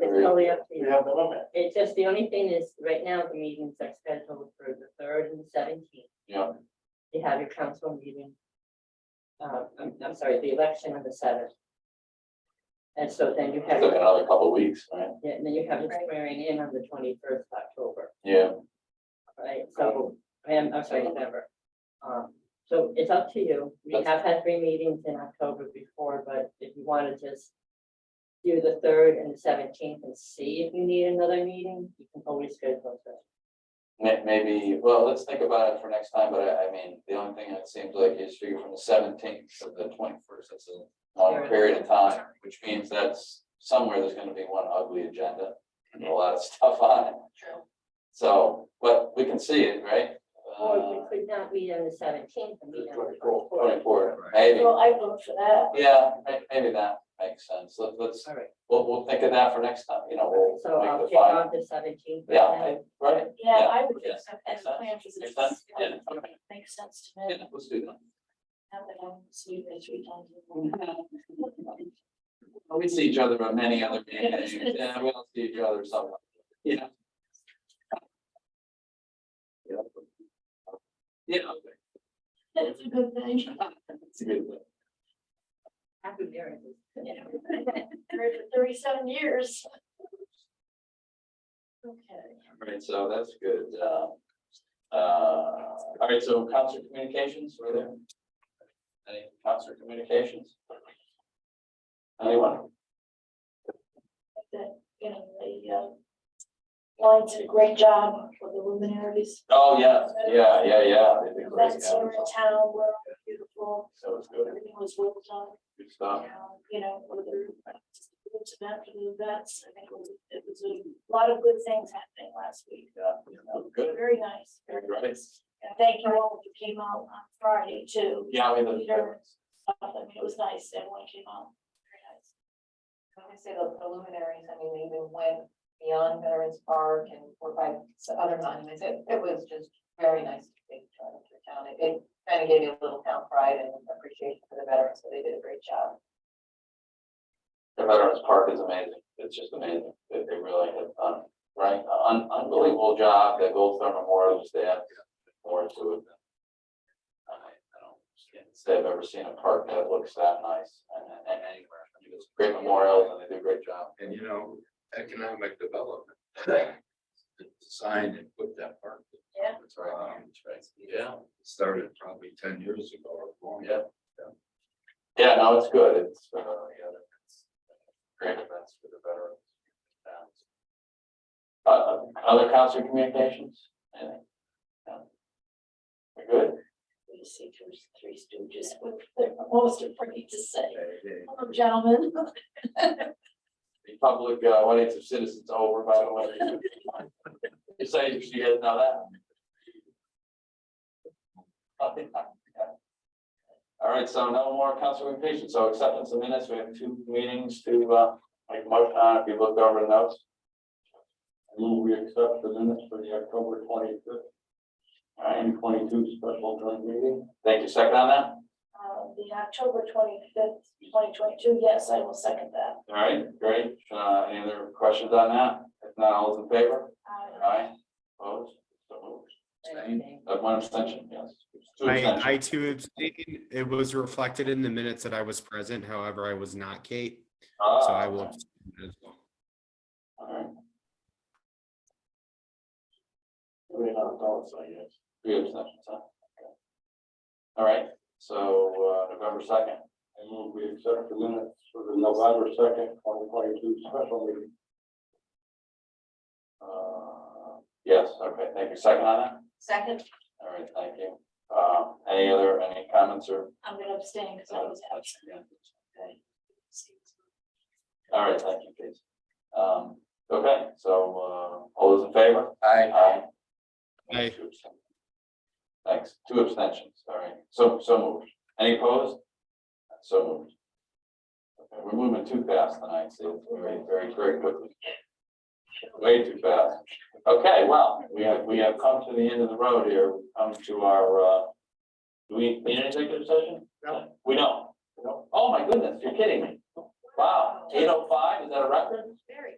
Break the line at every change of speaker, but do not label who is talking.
totally up to
We
you.
have the limit,
It's just, the only thing is, right now, the meetings are scheduled for the third and seventeenth.
yeah,
You have your council meeting. Uh, I'm, I'm sorry, the election on the seventh. And so then you have,
took another couple of weeks, right?
and then you have the
Right.
swearing in on the twenty-first of October,
Yeah,
right? So, I am, I'm sorry, November. Um, so it's up to you. We
That's-
have had three meetings in October before, but if you want to just do the third and the seventeenth and see if you need another meeting, you can always schedule that.
may, maybe, well, let's think about it for next time, but I, I mean, the only thing that seems like is figure from the seventeenth to the twenty-first, that's a long
Sure.
period of time, which means that's somewhere there's gonna be one ugly agenda and a lot of stuff on it.
True.
So, but we can see it, right?
Or
Uh,
we could not meet on the seventeenth and meet on the
Twenty-four,
twenty-fourth.
maybe,
Well, I vote for that.
yeah, may- maybe that makes sense, Let- let's,
Alright,
we'll, we'll think of that for next time, you know, we'll.
so
make
I'll
the
kick
final-
off the seventeenth.
Yeah, I- right,
Yeah, I would
Yeah.
accept that.
Makes sense.
plan for this.
Makes sense. Yeah.
Makes sense to me.
yeah, let's do that.
Now that I'm seeing this three times.
We see each other on many other meetings,
Yeah.
yeah, we don't see each other somewhere, you know. Yeah. Yeah, okay,
That's a good thing.
it's a good thing.
Happy marriages.
Yeah. Married for Thirty-seven years. Okay.
All right, so that's good, um, uh, all right, so concert communications, were there? Any concert communications? Anyone?
That, you know, the, um, Lions did a great job for the luminaries.
Oh, yeah, yeah, yeah, yeah. they did great,
Events
yeah.
here in town were beautiful.
So it's good,
Everything was well done.
good stuff.
know, you know, whether it's events after the events, I think it was, it was a lot of good things happening last week.
Yeah, you know, good,
Very nice. very
very great.
nice. And thank you all who came out on Friday too.
Yeah, we have. a-
I mean, it was nice. Everyone came out. Very nice.
When I say the the luminaries, I mean, they even went beyond Veterans Park and were by s- other monuments. It, it was just very nice to be joined to town. It- It kind of gave you a little town pride and appreciation for the veterans, so they did a great job.
The Veterans Park is amazing. It's just amazing that they really have done, right? Un- unbelievable job that Gold Star Memorial just they have more to it. than- I, I don't, can't say I've ever seen a park that looks that nice and, and anywhere. I mean, It's great memorials and they do a great job.
And you know, economic development. Designed and put that park.
Yeah.
That's right.
Um,
That's right.
Yeah, started probably ten years ago or longer.
Yeah. Yeah, no, it's good. It's, uh, yeah, it's great events for the veterans. Uh, other council communications? Anything? No? We're good?
We just see two, three stooges, what they're most afraid to say.
Yeah.
Hello, gentlemen.
The public, uh, audience of citizens over, by the way. You say, you guys know that? All right, so no more council communications. So acceptance of minutes, we have two meetings to, uh, make motion on if you look over the notes.
Move we accept the minutes for the October twenty-fifth and twenty-two special joint meeting.
Thank you. Second on that?
Uh, the October twenty-fifth, twenty twenty-two, yes, I will second that.
All right, great. Uh, any other questions on that? If not, all those in favor?
Uh,
Aye. Opposed? So moved. Abstained? Uh, one abstention, yes. Two
I,
abstentions.
I too abstain. It was reflected in the minutes that I was present. However, I was not Kate, so I will.
Ah,
abstain as well.
All right.
We have thoughts, I guess.
Three abstentions, huh? Okay. All right, so, uh, November second,
I move we accept the minutes for the November second, twenty twenty-two special meeting.
uh, yes, okay, thank you, second on that,
Second,
all right, thank you. Uh, any other, any comments or?
I'm gonna abstain because I was absent. Okay.
All right, thank you, Casey. Um, okay, so, uh, all those in favor?
I,
Aye.
Aye.
Two abstentions. Thanks, two abstentions, all right, so, so moved, any opposed? So moved. Okay, we're moving too fast tonight, so it's very, very, very quickly. Way too fast, okay, well, we have, we have come to the end of the road here, We've come to our, uh. Do we need an executive session? No. We don't?
No.
Oh, my goodness, you're kidding me, wow, eight oh five, is that a record?
Very